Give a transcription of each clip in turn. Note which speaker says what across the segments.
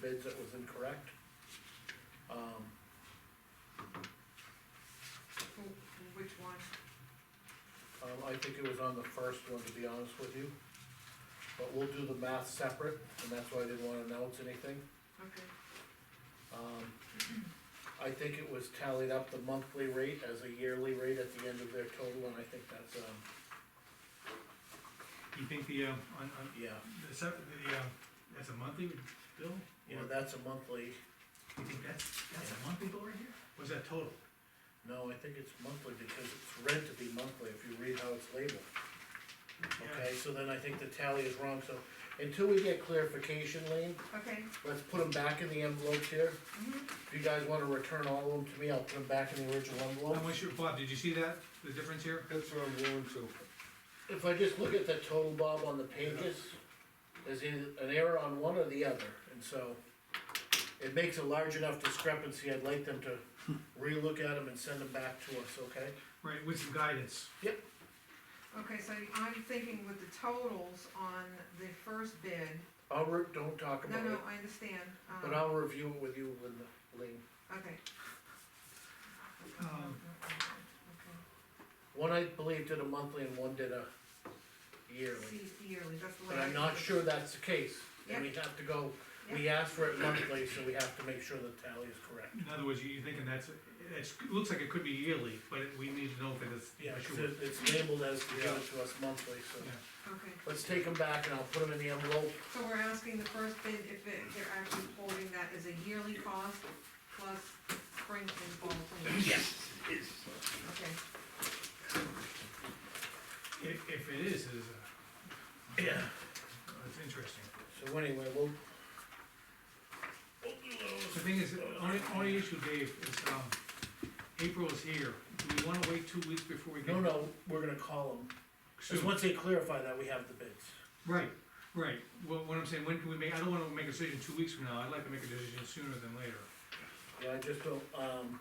Speaker 1: bids that was incorrect. Um,
Speaker 2: Who, which one?
Speaker 1: um, I think it was on the first one, to be honest with you. But we'll do the math separate, and that's why I didn't wanna announce anything.
Speaker 2: Okay,
Speaker 1: Um, I think it was tallied up the monthly rate as a yearly rate at the end of their total, and I think that's, um,
Speaker 3: You think the, um, on, on,
Speaker 1: yeah.
Speaker 3: the, sep- the, uh, that's a monthly bill?
Speaker 1: Yeah,
Speaker 3: Or
Speaker 1: that's a monthly,
Speaker 3: You think that's, that's a monthly bill right here? Was that total?
Speaker 1: no, I think it's monthly because it's read to be monthly if you read how it's labeled. Okay, so then I think the tally is wrong, so until we get clarification, Lean,
Speaker 2: okay,
Speaker 1: let's put them back in the envelopes here.
Speaker 2: Mm-hmm.
Speaker 1: If you guys wanna return all of them to me, I'll put them back in the original
Speaker 3: Yeah.
Speaker 1: envelope.
Speaker 3: How much, Bob, did you see that, the difference here?
Speaker 4: That's what I'm going to.
Speaker 1: If I just look at the total, Bob, on the pages, there's either an error on one or the other, and so it makes a large enough discrepancy, I'd like them to relook at them and send them back to us, okay?
Speaker 3: Right, with some guidance.
Speaker 2: okay, so I'm thinking with the totals on the first bid,
Speaker 1: I'll, re- don't talk
Speaker 2: no,
Speaker 1: about
Speaker 2: no, uh-uh.
Speaker 1: it,
Speaker 2: I understand,
Speaker 1: but
Speaker 2: um,
Speaker 1: I'll review it with you, Linda, Lean.
Speaker 2: okay.
Speaker 3: Um,
Speaker 1: One I believe did a monthly and one did a yearly.
Speaker 2: See, yearly, that's the way.
Speaker 1: But I'm not
Speaker 2: do it.
Speaker 1: sure that's the case, and we have to go, we asked for it monthly, so we have to make sure the tally is correct.
Speaker 3: In other words, you- you're thinking that's, it's, it looks like it could be yearly, but it- we need to know if it is.
Speaker 1: Yeah,
Speaker 3: for
Speaker 1: so
Speaker 3: sure.
Speaker 1: it's labeled as to give it to us monthly, so
Speaker 3: Yeah.
Speaker 2: Okay,
Speaker 1: let's take them back and I'll put them in the envelope.
Speaker 2: so we're asking the first bid if it, they're actually quoting that as a yearly cost plus spring and fall cleaning. Yes, Okay,
Speaker 3: If, if it is, it is, uh,
Speaker 1: Yeah.
Speaker 3: it's interesting.
Speaker 1: So anyway, we'll.
Speaker 3: The thing is, only, only issue, Dave, is, um, April is here, do we wanna wait two weeks before we get?
Speaker 1: No, no, we're gonna call them,
Speaker 3: Soon.
Speaker 1: cause once they clarify that, we have the bids.
Speaker 3: Right, right, well, what I'm saying, when can we make, I don't wanna make a decision two weeks from now, I'd like to make a decision sooner than later.
Speaker 1: Yeah, I just don't, um,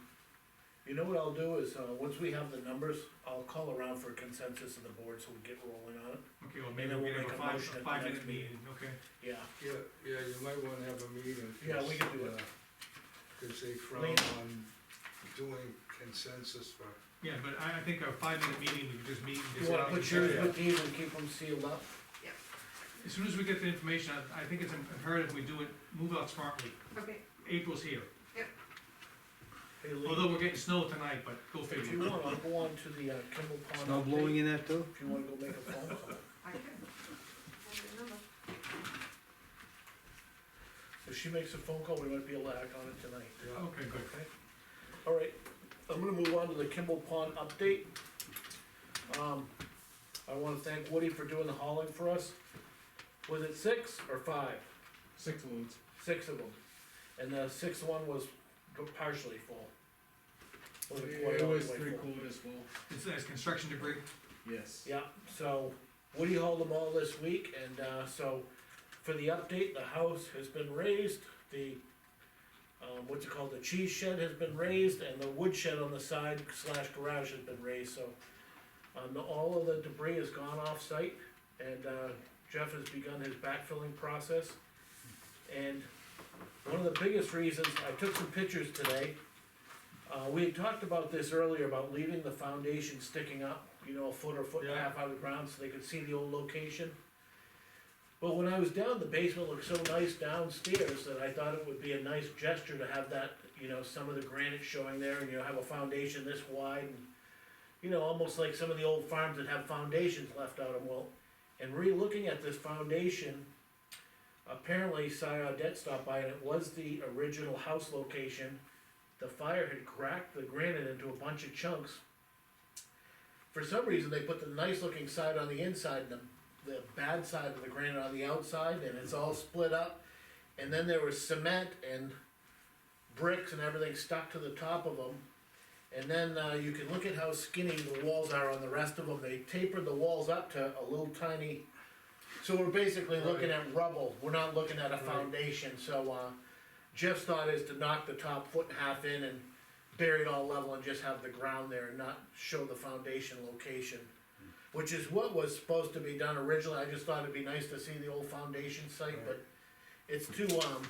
Speaker 1: you know what I'll do is, uh, once we have the numbers, I'll call around for consensus of the board so we get rolling on it.
Speaker 3: Okay, well, maybe
Speaker 1: Maybe
Speaker 3: we
Speaker 1: we'll make
Speaker 3: can have a
Speaker 1: a
Speaker 3: five,
Speaker 1: motion at
Speaker 3: a
Speaker 1: the
Speaker 3: five minute
Speaker 1: next meeting.
Speaker 3: meeting, okay?
Speaker 1: Yeah,
Speaker 4: Yeah, yeah, you might wanna have a meeting.
Speaker 1: Yeah, we can do it.
Speaker 4: uh, Cause they frown
Speaker 1: Lean.
Speaker 4: on doing consensus for,
Speaker 3: Yeah, but I, I think a five minute meeting, we could just meet and
Speaker 1: you
Speaker 3: just.
Speaker 1: wanna put yours with these and keep them sealed up?
Speaker 3: As soon as we get the information, I, I think it's imperative we do it, move out smartly,
Speaker 2: okay,
Speaker 3: April's here,
Speaker 1: Hey, Lee,
Speaker 3: although we're getting snow tonight, but go
Speaker 1: If you
Speaker 3: figure.
Speaker 1: want, I'll go on to the uh, Kimball Pond.
Speaker 5: Snow blowing in that too?
Speaker 1: update, If you wanna go make a phone call.
Speaker 2: I can. Hold your number.
Speaker 1: If she makes a phone call, we might be able to act on it tonight.
Speaker 4: yeah.
Speaker 3: Okay, good.
Speaker 1: All right, I'm gonna move on to the Kimball Pond update. Um, I wanna thank Woody for doing the hauling for us. Was it six or five?
Speaker 6: Six loads.
Speaker 1: Six of them. And the sixth one was partially full. Wasn't quite all
Speaker 6: It
Speaker 1: the
Speaker 6: was
Speaker 1: way
Speaker 6: three
Speaker 1: full.
Speaker 6: quarters full.
Speaker 3: It's, it's construction debris,
Speaker 6: Yes.
Speaker 1: Yeah, so Woody hauled them all this week, and, uh, so for the update, the house has been raised, the, um, what's it called, the cheese shed has been raised, and the wood shed on the side slash garage has been raised, so um, all of the debris has gone off-site, and, uh, Jeff has begun his backfilling process. And one of the biggest reasons, I took some pictures today, uh, we had talked about this earlier, about leaving the foundation sticking up, you know, a foot or foot and a
Speaker 3: Yeah.
Speaker 1: half out of the ground, so they could see the old location. But when I was down, the basement looked so nice downstairs that I thought it would be a nice gesture to have that, you know, some of the granite showing there, and you know, have a foundation this wide, and you know, almost like some of the old farms that have foundations left out of them, well, and re-looking at this foundation, apparently Si Audet stopped by and it was the original house location. The fire had cracked the granite into a bunch of chunks. For some reason, they put the nice looking side on the inside and the, the bad side of the granite on the outside and it's all split up. And then there was cement and bricks and everything stuck to the top of them. And then, uh, you can look at how skinny the walls are on the rest of them, they tapered the walls up to a little tiny. So we're basically looking at rubble, we're not looking at a foundation, so, uh, Jeff's thought is to knock the top foot and a half in and bury it all level and just have the ground there and not show the foundation location. Which is what was supposed to be done originally, I just thought it'd be nice to see the old foundation site, but it's too, um,